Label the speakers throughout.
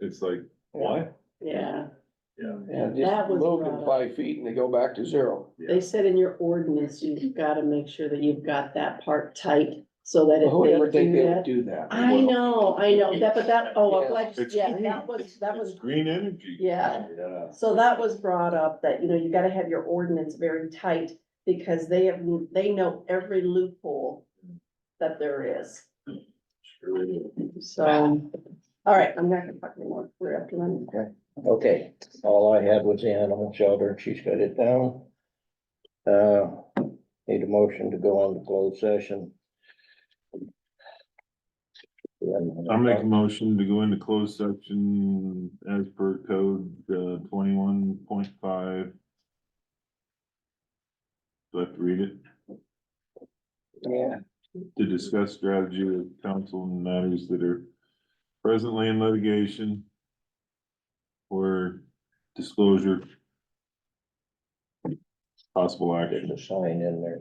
Speaker 1: it's like, what?
Speaker 2: Yeah,
Speaker 1: Yeah.
Speaker 3: Yeah,
Speaker 2: That
Speaker 3: just
Speaker 2: was
Speaker 3: load
Speaker 2: brought
Speaker 3: them
Speaker 2: up.
Speaker 3: five feet and they go back to zero.
Speaker 2: they said in your ordinance, you've gotta make sure that you've got that part tight, so that
Speaker 3: Who would ever
Speaker 2: if they
Speaker 3: think
Speaker 2: do
Speaker 3: they would
Speaker 2: that.
Speaker 3: do that?
Speaker 2: I know, I know, that, but that, oh,
Speaker 3: Yeah.
Speaker 2: I'm glad, you-
Speaker 1: It's
Speaker 2: yeah,
Speaker 1: green.
Speaker 2: that was, that
Speaker 1: It's
Speaker 2: was,
Speaker 1: Green energy.
Speaker 2: Yeah.
Speaker 1: Yeah.
Speaker 2: so that was brought up, that, you know, you gotta have your ordinance very tight, because they have, they know every loophole that there is,
Speaker 1: Sure they do.
Speaker 2: so, all right, I'm not gonna talk anymore, we're up to them.
Speaker 4: Okay, all I had was the animal shelter, she's got it down. Uh, need a motion to go on to closed session.
Speaker 1: I'll make a motion to go into closed section as per code, uh, twenty-one point five. Do I have to read it?
Speaker 3: Yeah,
Speaker 1: To discuss strategy with council and matters that are presently in litigation. Or disclosure. Possible
Speaker 4: There's
Speaker 1: action.
Speaker 4: a sign in there.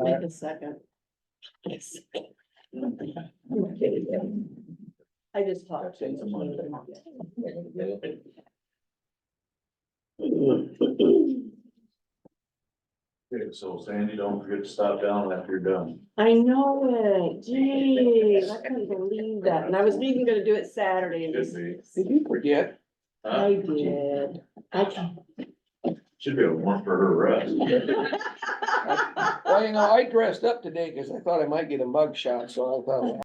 Speaker 2: Make a second. Yes. I just talked.
Speaker 4: That's it, Amanda.
Speaker 1: So Sandy, don't forget to stop down after you're done.
Speaker 2: I know it, geez, I couldn't believe that, and I was even gonna do it Saturday. and just-
Speaker 3: did you forget?
Speaker 2: I did, I can.
Speaker 1: Should be a warrant for her rest.
Speaker 3: Well, you know, I dressed up today because I thought I might get a mug shot, so I thought.